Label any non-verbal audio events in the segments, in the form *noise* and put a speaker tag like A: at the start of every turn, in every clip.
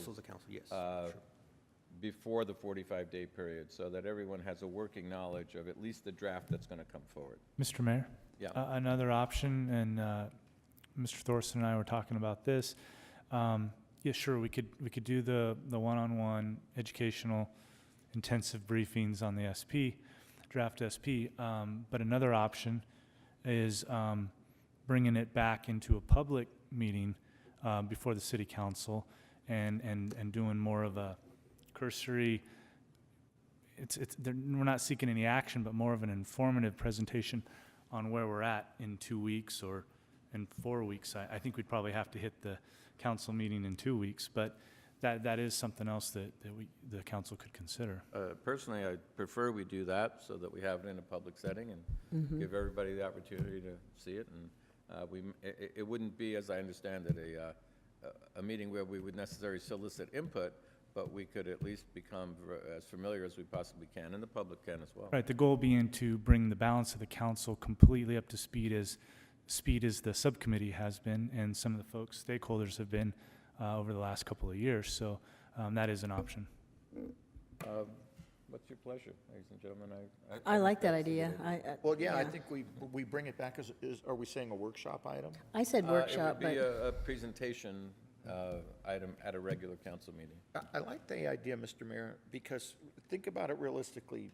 A: council's a council, yes.
B: uh,
A: Sure.
B: before the 45-day period, so that everyone has a working knowledge of at least the draft that's going to come forward.
C: Mr. Mayor?
B: Yeah.
C: a- Another option, and uh, Mr. Thorson and I were talking about this. Um, Yeah, sure, we could, we could do the, the one-on-one educational intensive briefings on the SP, draft SP. um, But another option is um, bringing it back into a public meeting uh, before the city council and, and, and doing more of a cursory, it's, it's, they're- we're not seeking any action, but more of an informative presentation on where we're at in two weeks or in four weeks. I, I think we'd probably have to hit the council meeting in two weeks, but that, that is something else that, that we, the council could consider.
B: Uh, Personally, I prefer we do that so that we have it in a public setting
D: Mm-hmm.
B: and give everybody the opportunity to see it. And uh, we, m- i- i- it wouldn't be, as I understand it, a, uh, a- a meeting where we would necessarily solicit input, but we could at least become ver- as familiar as we possibly can, and the public can as well.
C: Right, the goal being to bring the balance of the council completely up to speed as, speed as the subcommittee has been and some of the folks, stakeholders have been uh, over the last couple of years. So um, that is an option.
B: Um, What's your pleasure, ladies and gentlemen?
D: I like that
B: think that's a good
D: idea. I, uh, I-
E: Well, yeah, I think we, we bring it back as, is, are we saying a workshop item?
D: I said
B: Uh,
D: workshop,
B: It would be
D: but
B: a, a presentation uh, item at a regular council meeting.
E: I, I like the idea, Mr. Mayor, because think about it realistically,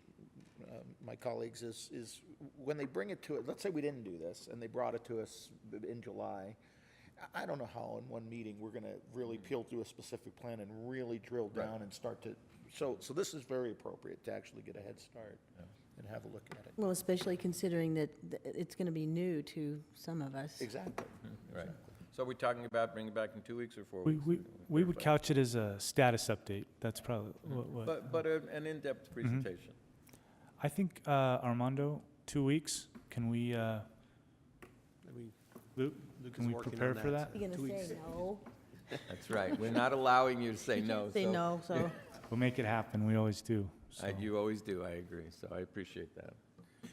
E: uh, my colleagues, is, is when they bring it to, it. let's say we didn't do this, and they brought it to us in July, I, I don't know how in one meeting we're gonna really peel through a specific plan and really drill down and start to, so, so this is very appropriate to actually get a head start and have a look at it.
D: well, especially considering that th- it's going to be new to some of us.
E: Exactly.
B: Right. So we're talking about bringing it back in two weeks or four
C: We,
B: weeks?
C: we, we would couch it as a status update. That's probably what, what.
B: Mm-hmm. But, but a- an in-depth presentation.
C: I think uh, Armando, two weeks. Can we, uh,
A: We-
C: Luke,
A: Luke
C: can
A: is
C: we
A: working on
C: prepare for that?
D: You're
A: Two
D: going to
A: weeks.
D: say no?
B: That's right. We're not allowing you to say no,
D: Say no,
B: *laughs*
D: so,
C: We'll make it happen. We always do. So.
B: I- You always do, I agree, so I appreciate that.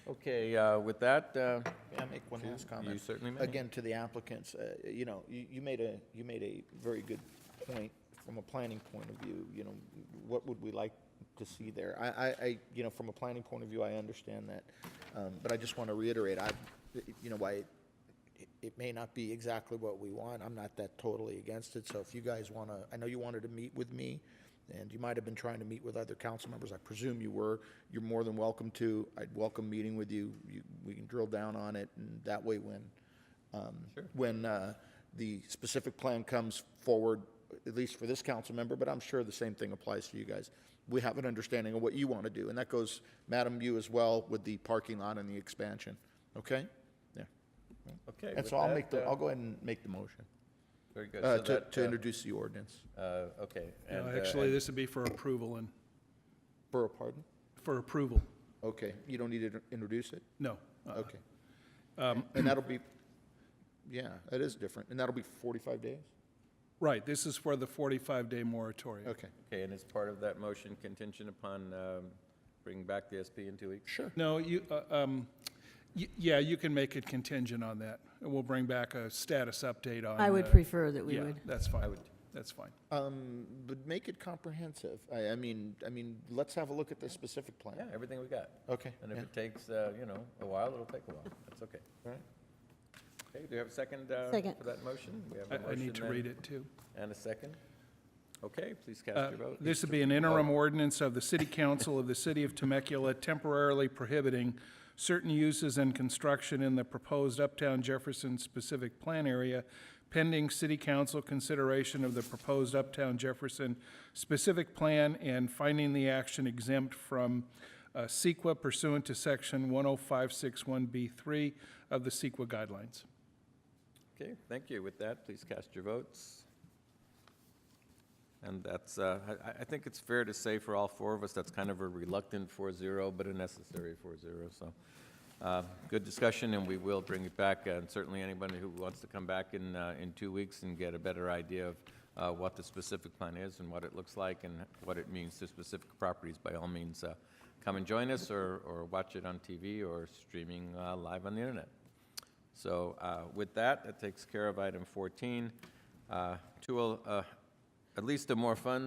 B: Okay, uh, with that, uh,
E: May I make one last comment?
B: you certainly may.
E: Again, to the applicants, uh, you know, you, you made a, you made a very good point from a planning point of view, you know, what would we like to see there? I, I, I, you know, from a planning point of view, I understand that, um, but I just want to reiterate, I, you know, why it- it may not be exactly what we want, I'm not that totally against it, so if you guys want to, I know you wanted to meet with me, and you might have been trying to meet with other council members, I presume you were, you're more than welcome to, I'd welcome meeting with you, You- we can drill down on it, and that way when, um, when uh, the specific plan comes forward, at least for this council member, but I'm sure the same thing applies to you guys, we have an understanding of what you want to do, and that goes, Madam, you as well, with the parking lot and the expansion, okay? Yeah.
B: Okay.
E: And
B: with
E: so I'll
B: that,
E: make the,
B: uh,
E: I'll go ahead and make the motion
B: Very good.
E: uh,
B: So
E: to,
B: that,
E: to
B: uh,
E: introduce the ordinance.
B: uh, Okay.
F: No,
B: and, uh,
F: Actually,
B: and-
F: this would be for approval and,
E: Borough pardon?
F: for approval.
E: Okay, you don't need to introduce it?
F: No.
B: Uh-huh.
F: uh-uh.
E: Okay.
B: Um,
E: And that'll be, yeah, that is different, and that'll be 45 days?
F: Right, this is for the 45-day moratorium.
E: Okay.
B: Okay, and as part of that motion contingent upon um, bringing back the SP in two weeks?
E: Sure.
F: No, you, uh, um, y- yeah, you can make it contingent on that. And we'll bring back a status update on.
D: I would
F: uh,
D: prefer that we
F: Yeah,
D: would.
F: that's fine. That's fine.
E: Um, But make it comprehensive. I, I mean, I mean, let's have a look at the specific
B: Yeah,
E: plan.
B: everything we got.
E: Okay.
B: And if
E: yeah.
B: it takes, uh, you know, a while, it'll take a while. That's okay.
E: Right.
B: Okay, do you have a second uh,
D: Second.
B: for that motion? We have a
F: I, I
B: motion
F: need to
B: and-
F: read it too.
B: And a second? Okay, please
F: Uh,
B: cast your vote.
F: This would be an interim ordinance of the City Council of the City of Temecula temporarily prohibiting certain uses and construction in the proposed Uptown Jefferson specific plan area pending City Council consideration of the proposed Uptown Jefferson specific plan and finding the action exempt from uh, CEQA pursuant to Section 10561B3 of the CEQA guidelines.
B: Okay, thank you. With that, please cast your votes. And that's, uh, I, I- I think it's fair to say for all four of us, that's kind of a reluctant 4-0, but a necessary 4-0, so. uh, Good discussion, and we will bring it back, and certainly anybody who wants to come back in, uh, in two weeks and get a better idea of uh, what the specific plan is and what it looks like and what it means to specific properties, by all means, uh, come and join us or, or watch it on TV or streaming uh, live on the internet. So uh, with that, that takes care of item 14. Uh, 20, uh, at least the more fun